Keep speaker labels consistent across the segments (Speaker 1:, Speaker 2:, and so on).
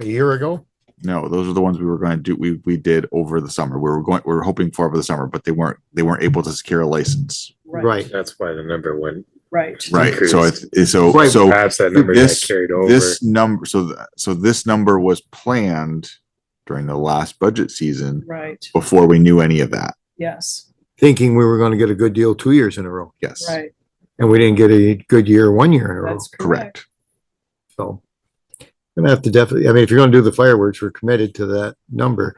Speaker 1: a year ago.
Speaker 2: No, those are the ones we were going to do. We we did over the summer. We were going. We were hoping for over the summer, but they weren't. They weren't able to secure a license.
Speaker 1: Right.
Speaker 3: That's why the number went.
Speaker 4: Right.
Speaker 2: Right. So
Speaker 3: Increased.
Speaker 2: it's so
Speaker 1: Right.
Speaker 2: so
Speaker 3: Perhaps that number got
Speaker 2: this-
Speaker 3: carried over.
Speaker 2: this number. So th- so this number was planned during the last budget season
Speaker 4: Right.
Speaker 2: before we knew any of that.
Speaker 4: Yes.
Speaker 1: Thinking we were gonna get a good deal two years in a row,
Speaker 2: Yes.
Speaker 4: Right.
Speaker 1: and we didn't get a good year one year in a row,
Speaker 4: That's
Speaker 2: Correct.
Speaker 4: correct.
Speaker 1: so. Gonna have to definitely, I mean, if you're gonna do the fireworks, we're committed to that number,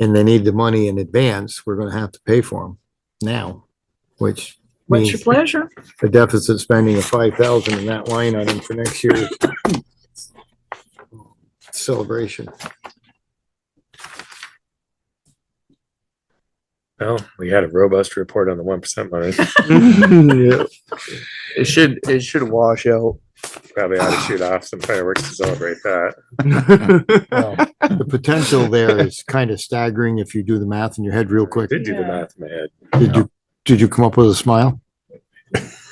Speaker 1: and they need the money in advance, we're gonna have to pay for them now, which
Speaker 4: What's your
Speaker 1: means
Speaker 4: pleasure?
Speaker 1: a deficit spending of five thousand in that line item for next year's celebration.
Speaker 3: Well, we had a robust report on the one percent money.
Speaker 5: Yeah. It should, it should wash out.
Speaker 3: Probably ought to shoot off some fireworks to celebrate that.
Speaker 1: Well, The potential there is kind of staggering if you do the math in your head real quick.
Speaker 3: Did do the
Speaker 4: Yeah.
Speaker 3: math in my head.
Speaker 1: Did you, did you come up with a smile?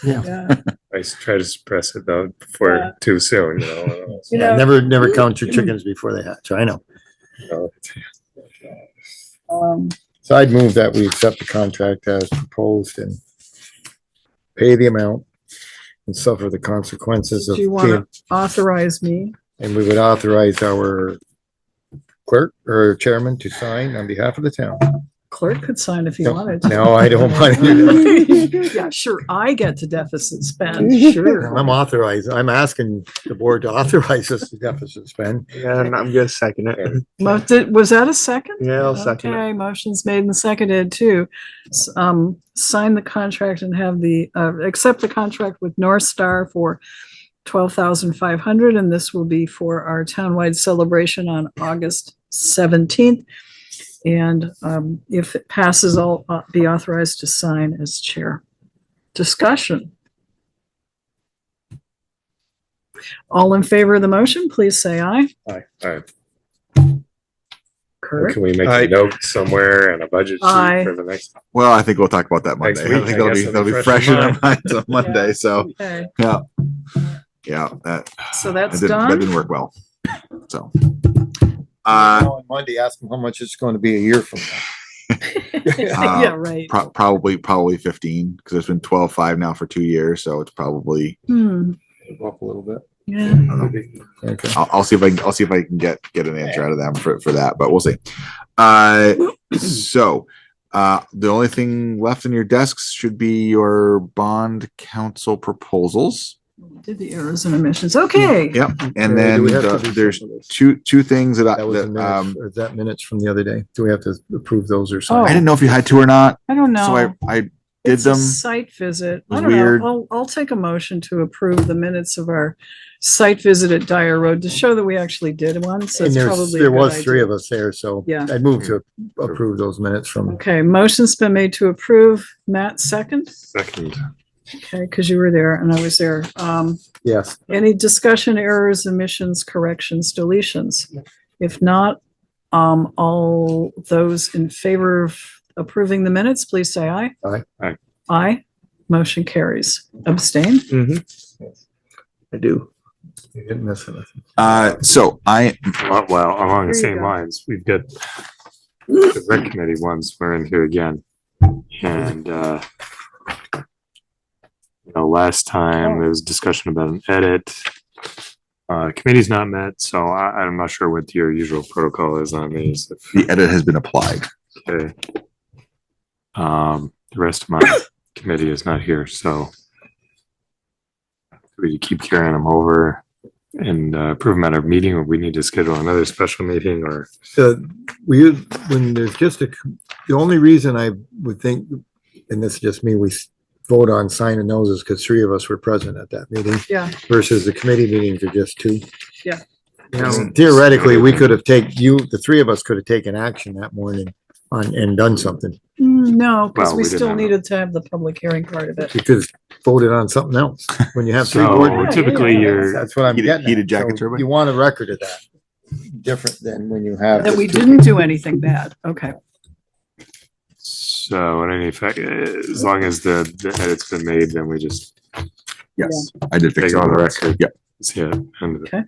Speaker 4: Yeah.
Speaker 3: I s- try to suppress it though before
Speaker 4: Yeah.
Speaker 3: too soon. You know. I don't know.
Speaker 4: You know,
Speaker 1: Never, never count your chickens before they hatch. I know.
Speaker 3: So,
Speaker 4: um,
Speaker 1: So I'd move that we accept the contract as proposed and pay the amount and suffer the consequences of,
Speaker 4: do you want to authorize me?
Speaker 1: and we would authorize our clerk or chairman to sign on behalf of the town.
Speaker 4: Clerk could sign if he
Speaker 1: No.
Speaker 4: wanted.
Speaker 1: No, I don't want to do that.
Speaker 4: Yeah, sure. I get to deficit spend, sure.
Speaker 1: I'm authorized, I'm asking the board to authorize us to deficit spend.
Speaker 5: Yeah, and I'm gonna second it.
Speaker 4: Mo- did- Was that a second?
Speaker 5: Yeah, I'll second it.
Speaker 4: Okay, motion's made and seconded to, s- um, sign the contract and have the, uh, accept the contract with North Star for twelve thousand five hundred, and this will be for our townwide celebration on August seventeenth. And, um, if it passes, I'll uh, be authorized to sign as chair. Discussion. All in favor of the motion, please say aye.
Speaker 3: all right.
Speaker 4: Kurt?
Speaker 3: Can we make
Speaker 5: I-
Speaker 3: a note somewhere and a budget
Speaker 4: I-
Speaker 3: sheet for the next?
Speaker 2: Well, I think we'll talk about that
Speaker 3: Next
Speaker 2: Monday.
Speaker 3: week,
Speaker 2: I think
Speaker 3: I
Speaker 2: that'll
Speaker 3: guess
Speaker 2: be
Speaker 3: it'll
Speaker 2: that'll
Speaker 3: be
Speaker 2: be
Speaker 3: fresh
Speaker 2: fresh in
Speaker 3: in
Speaker 2: our minds on Monday. So
Speaker 4: Okay.
Speaker 2: yeah, yeah, that
Speaker 4: So
Speaker 2: that
Speaker 4: that's
Speaker 2: didn't, that
Speaker 4: done.
Speaker 2: didn't work well. So. Uh,
Speaker 1: On Monday, ask them how much it's going to be a year from now.
Speaker 2: Uh,
Speaker 4: Yeah, right.
Speaker 2: pro- probably probably 15 because it's been 12 5 now for two years so it's probably
Speaker 4: Hmm,
Speaker 5: Up a little bit.
Speaker 4: yeah.
Speaker 1: Okay.
Speaker 2: I'll, I'll see if I can, I'll see if I can get get an answer out of them for, for that, but we'll see. Uh, so uh, the only thing left in your desks should be your bond council proposals,
Speaker 4: Did the errors and omissions. Okay.
Speaker 2: Yeah. and
Speaker 1: Uh, do
Speaker 2: then
Speaker 1: we have to
Speaker 2: the,
Speaker 1: do
Speaker 2: there's
Speaker 1: something with this?
Speaker 2: two two things that I
Speaker 1: That was
Speaker 2: that,
Speaker 1: in
Speaker 2: um,
Speaker 1: minutes, or is that minutes from the other day. Do we have to approve those or
Speaker 4: Oh.
Speaker 2: I
Speaker 1: something?
Speaker 2: didn't know if you had to or not,
Speaker 4: I don't know.
Speaker 2: so I I did
Speaker 4: It's a
Speaker 2: them.
Speaker 4: Site visit. I
Speaker 2: was
Speaker 4: don't
Speaker 2: weird.
Speaker 4: know. I'll, I'll take a motion to approve the minutes of our site visit at Dyer Road to show that we actually did one. So
Speaker 1: And
Speaker 4: it's
Speaker 1: there's,
Speaker 4: probably. a
Speaker 1: there
Speaker 4: good
Speaker 1: was
Speaker 4: idea.
Speaker 1: three of us there, so
Speaker 4: Yeah.
Speaker 1: I moved to approve those minutes from,
Speaker 4: Okay, motion's been made to approve. Matt, second?
Speaker 3: Second.
Speaker 4: Okay, because you were there and I was there. Um,
Speaker 1: yes.
Speaker 4: Any discussion, errors, omissions, corrections, deletions? If not, um, all those in favor of approving the minutes, please say aye.
Speaker 1: Aye.
Speaker 3: Aye.
Speaker 4: Aye. Motion carries. Abstain?
Speaker 5: I do.
Speaker 1: You didn't miss anything.
Speaker 2: Uh, so I
Speaker 3: Well, Uh, well, along the
Speaker 4: Here you
Speaker 3: same
Speaker 4: go.
Speaker 3: lines, we've got the rec committee ones, we're in here again. And, uh, you know, last time there was discussion about an edit. Uh, committee's not met, so I, I'm not sure what your usual protocol is on these. If-
Speaker 2: the edit has been applied.
Speaker 3: Okay. Um, the rest of my committee is not here, so we keep carrying them over and uh, approve them at our meeting, or we need to schedule another special meeting, or
Speaker 1: So we, use- when there's just a, the only reason I would think, and this is just me, we s- vote on signing those is because three of us were present at that meeting.
Speaker 4: Yeah.
Speaker 1: Versus the committee meetings are just two.
Speaker 4: Yeah.
Speaker 1: And Theoretically, we could have taken, you, the three of us could have taken action that morning on, and done something.
Speaker 4: Mm, No, because
Speaker 3: Well,
Speaker 4: we
Speaker 3: we didn't
Speaker 4: still
Speaker 3: have a-
Speaker 4: needed to have the public hearing part of it.
Speaker 1: You could have voted on something else when you have three board
Speaker 3: so
Speaker 1: members.
Speaker 3: typically
Speaker 4: Yeah, yeah,
Speaker 3: you're,
Speaker 1: That's what I'm
Speaker 2: Heated-
Speaker 1: getting at.
Speaker 2: heated jacket
Speaker 1: So
Speaker 2: turbine?
Speaker 1: You want a record of that, different than when you have.
Speaker 4: That we
Speaker 1: just two
Speaker 4: didn't do anything bad. Okay.
Speaker 3: so in any fact, as long as the, the edit's been made, then we just
Speaker 2: Yes, I did fix
Speaker 3: take
Speaker 2: it
Speaker 3: on the record.
Speaker 2: Yep.
Speaker 3: See it. end of it.
Speaker 4: Okay.